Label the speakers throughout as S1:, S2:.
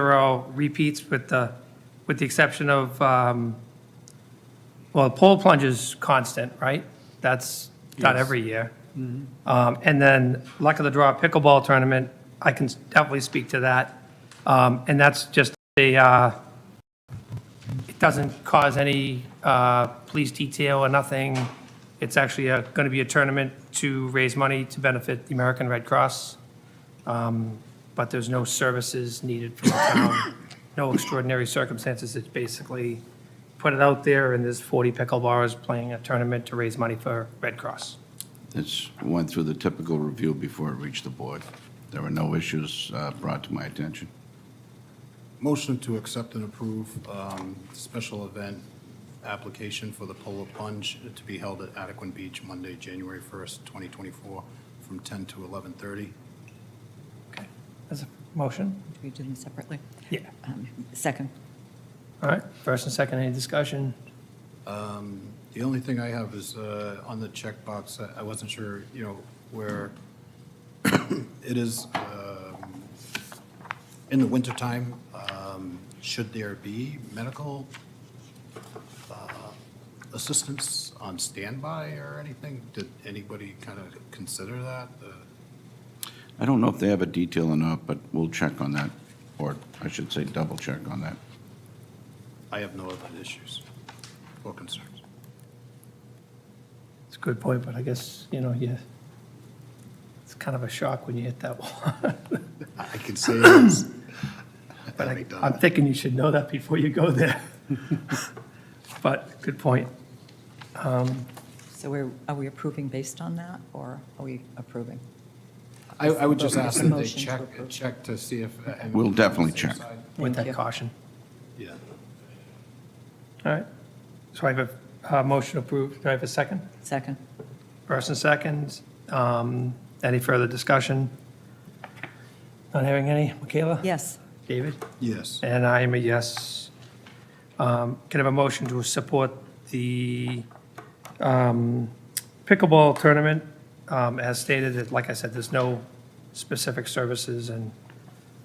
S1: There are all repeats with the, with the exception of, um, well, pole plunge is constant, right? That's not
S2: Yes.
S1: every year. Um, And then luck of the draw pickleball tournament, I can definitely speak to that. Um, And that's just a, uh, it doesn't cause any uh, police detail or nothing. It's actually going to be a tournament to raise money to benefit the American Red Cross but there's no services needed from the town, no extraordinary circumstances. It's basically put it out there, and there's 40 pickleballers playing a tournament to raise money for Red Cross.
S3: It's went through the typical review before it reached the board. There were no issues uh, brought to my attention.
S2: Motion to accept and approve um, special event application for the Polar Plunge to be held at Adequan Beach Monday, January 1st, 2024, from 10 to 11:30.
S1: Okay. As a motion?
S4: We do them separately.
S1: Yeah.
S4: Um, Second,
S1: All right, first and second, any discussion?
S2: The only thing I have is uh, on the checkbox, I- I wasn't sure, you know, where it is um, in the wintertime, um, should there be medical uh, assistance on standby or anything? Did anybody kind of consider that? Uh,
S3: I don't know if they have a detail or not, but we'll check on that, or I should say, double check on that.
S2: I have no other issues or concerns.
S1: It's a good point, but I guess, you know, yeah, it's kind of a shock when you hit that wall.
S2: I I can say this.
S1: But I-
S2: Having done
S1: I'm
S2: that.
S1: thinking you should know that before you go there. But, good point.
S4: so we're, are we approving based on that, or are we approving?
S2: I, I would just ask that they
S4: Motion to
S2: check,
S4: approve.
S2: check to see if. uh, and-
S3: We'll definitely check.
S1: with
S4: Thank
S1: that
S4: you.
S1: caution.
S2: Yeah.
S1: All right. So I have a uh, motion approved. Do I have a second?
S4: Second,
S1: First and second. Um, Any further discussion? Not having any? Michaela?
S4: yes,
S1: David?
S2: Yes.
S1: And I am a yes. Um, Can I have a motion to support the um, pickleball tournament? Um, As stated, that, like I said, there's no specific services, and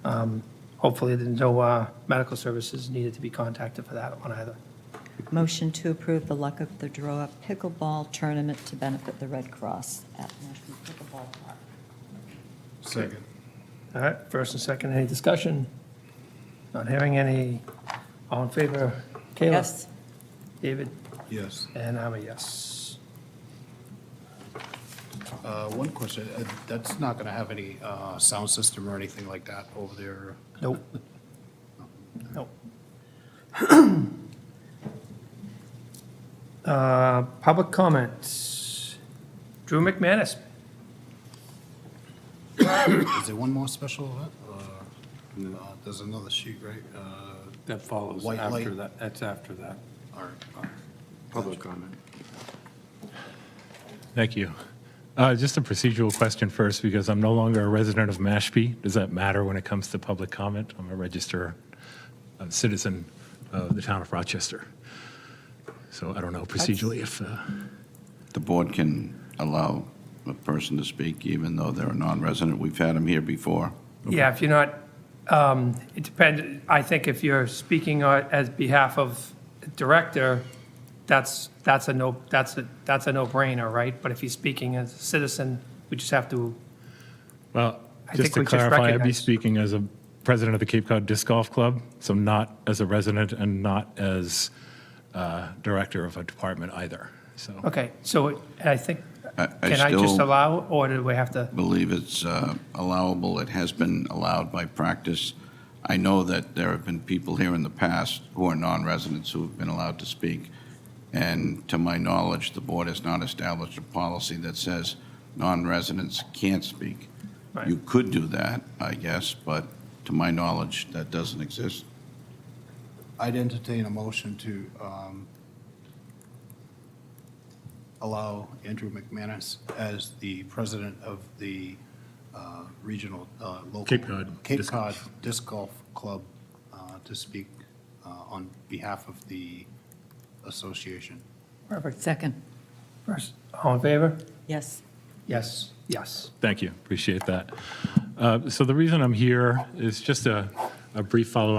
S1: um, hopefully there's no uh, medical services needed to be contacted for that one either.
S4: motion to approve the Luck of the Draw pickleball tournament to benefit the Red Cross at National Pickleball Park.
S2: Second.
S1: All right, first and second, any discussion? Not hearing any. All in favor? Kayla?
S4: Yes,
S1: David?
S2: Yes.
S1: And I'm a yes.
S2: Uh, One question, uh, that's not going to have any uh, sound system or anything like that over there?
S1: Nope. Nope. Uh, Public comments. Drew McManus.
S2: Is there one more special event? Uh, uh, There's another sheet, right? Uh,
S5: That follows
S2: White
S5: after
S2: light.
S5: that, that's after that.
S2: All right.
S3: Public comment.
S6: Thank you. Uh, Just a procedural question first, because I'm no longer a resident of Mashpee. Does that matter when it comes to public comment? I'm a registered uh, citizen of the town of Rochester. So I don't know procedurally if, uh,
S3: The board can allow a person to speak even though they're a non-resident. We've had them here before.
S1: Yeah, if you're not, um, it depends, I think if you're speaking on- as behalf of director, that's, that's a no, that's a, that's a no-brainer, right? But if he's speaking as a citizen, we just have to,
S6: well,
S1: I think
S6: just to
S1: we just
S6: clarify, I'd be
S1: recognize-
S6: speaking as a president of the Cape Cod Disc Golf Club, so not as a resident and not as uh, director of a department either, so.
S1: okay, so it- and I think,
S3: I- I
S1: can I just
S3: still-
S1: allow, or do we have to?
S3: believe it's uh, allowable. It has been allowed by practice. I know that there have been people here in the past who are non-residents who have been allowed to speak. And to my knowledge, the board has not established a policy that says non-residents can't speak.
S1: Right.
S3: You could do that, I guess, but to my knowledge, that doesn't exist.
S2: I'd entertain a motion to um, allow Andrew McManus as the president of the uh, regional, uh, local.
S6: Cape Cod
S2: Cape
S6: Disc
S2: Cod
S6: Golf.
S2: Disc Golf Club uh, to speak uh, on behalf of the association.
S1: Perfect.
S4: second,
S1: First, all in favor?
S4: yes,
S1: Yes, yes.
S6: Thank you, appreciate that. Uh, So the reason I'm here is just a, a brief follow-up